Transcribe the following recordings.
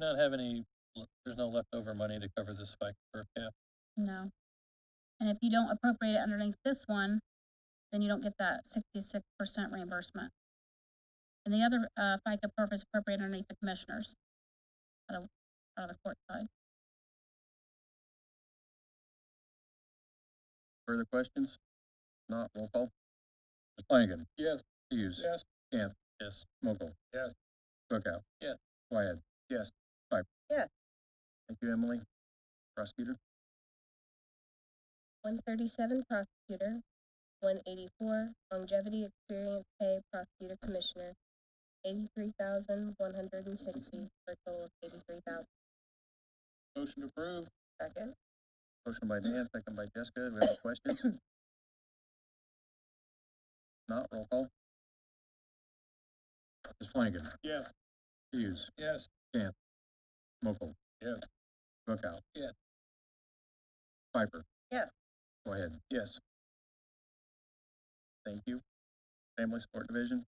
not have any, there's no leftover money to cover this spike per cap. No. And if you don't appropriate it underneath this one, then you don't get that sixty-six percent reimbursement. And the other, uh, FICA perf is appropriated underneath the commissioners. Out of, out of the court side. Further questions? Not roll call. Flanagan. Yes. Hughes. Yes. Camp. Yes. Mokel. Yes. Bookout. Yes. Wyatt. Yes. Piper. Yes. Thank you, Emily. Prosecutor. One thirty-seven prosecutor, one eighty-four longevity experience pay prosecutor commissioner, eighty-three thousand one hundred and sixty, for a total of eighty-three thousand. Motion approved. Second? Motion by Dan, second by Jessica. Do we have any questions? Not roll call. Ms. Flanagan. Yes. Hughes. Yes. Camp. Mokel. Yes. Bookout. Yes. Piper. Yes. Go ahead. Yes. Thank you. Family Support Division,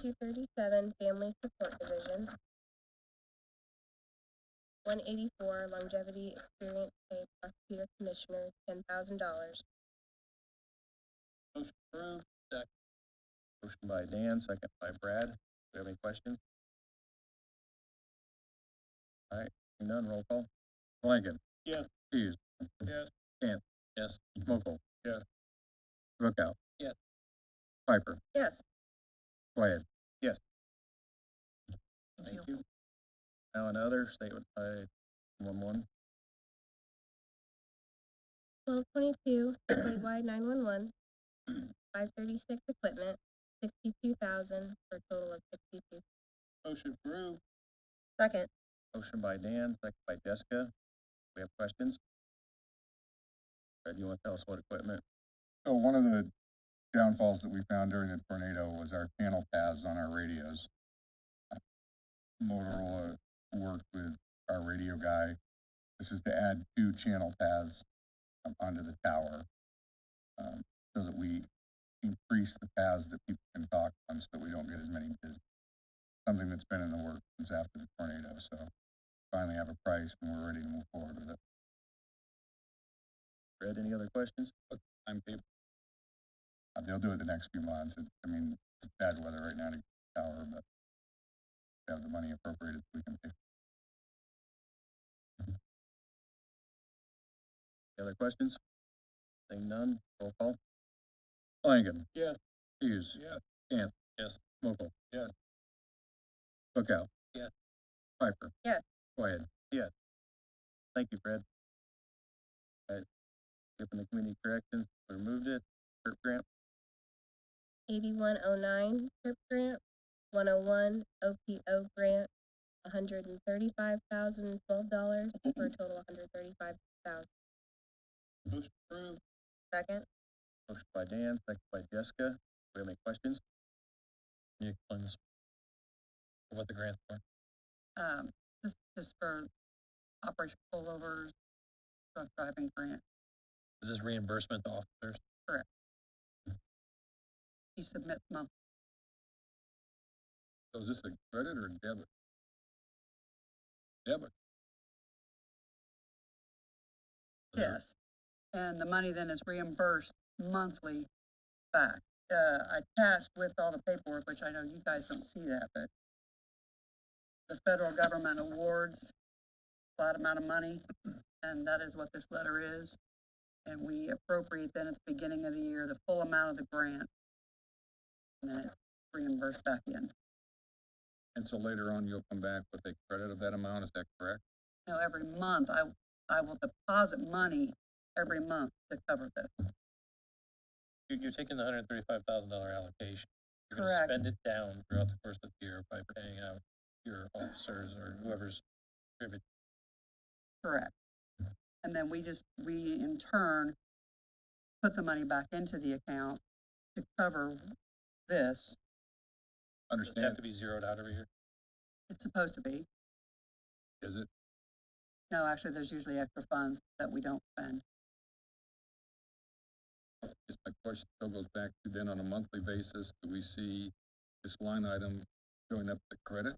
Two thirty-seven family support division, one eighty-four longevity experience pay prosecutor commissioner, ten thousand dollars. Motion approved, second. Motion by Dan, second by Brad. Do we have any questions? All right, seeing none, roll call. Flanagan. Yes. Hughes. Yes. Camp. Yes. Mokel. Yes. Bookout. Yes. Piper. Yes. Wyatt. Yes. Thank you. Now another statement by one one. Twelve twenty-two, citywide nine-one-one, five thirty-six equipment, sixty-two thousand, for a total of sixty-two. Motion approved. Second. Motion by Dan, second by Jessica. We have questions? Fred, you want to tell us what equipment? So one of the downfalls that we found during the tornado was our channel paths on our radios. Motorola worked with our radio guy. This is to add two channel paths um, onto the tower. Um, so that we increase the paths that people can talk on so that we don't get as many business. Something that's been in the works since after the tornado, so finally have a price and we're ready to move forward with it. Fred, any other questions? I'm people. Uh, They'll do it the next few months. It- I mean, it's bad weather right now to tower, but we have the money appropriated, we can Mm-hmm. fix Any other questions? Seeing none, roll call. Flanagan. Yes. Hughes. Yes. Camp. Yes. Mokel. Yes. Bookout. Yes. Piper. Yes. Wyatt. Yes. Oh, Thank you, Fred. All right, given the community corrections, we removed it, Kurt Grant. Eighty-one oh nine, TIP grant, one oh one, OPO grant, hundred and thirty-five thousand, twelve dollars, for a total of hundred thirty-five thousand. Motion approved. Second? Motion by Dan, second by Jessica. Do we have any questions? Can you explain this? What the grant's for? um, this is for operation pullovers, drunk driving grant, Is this reimbursement to officers? he submits monthly. So is this a credit or a debit? Debit. Yes. And the money then is reimbursed monthly back, uh, attached with all the paperwork, which I know you guys don't see that, but the federal government awards a lot amount of money, and that is what this letter is. And we appropriate then at the beginning of the year, the full amount of the grant. And then it's reimbursed back in. And so later on, you'll come back with a credit of that amount, is that correct? know, every month, I, I will deposit money every month to cover this. You're, you're taking the hundred and thirty-five thousand dollar allocation. You're gonna Correct. spend it down throughout the course of the year by paying out your officers or whoever's contributing. Correct. And then we just, we in turn, put the money back into the account to cover this. Does it have to be zeroed out every year? It's supposed to be. Is it? No, actually, there's usually extra funds that we don't spend. Just my question still goes back to then on a monthly basis, do we see this line item showing up the credit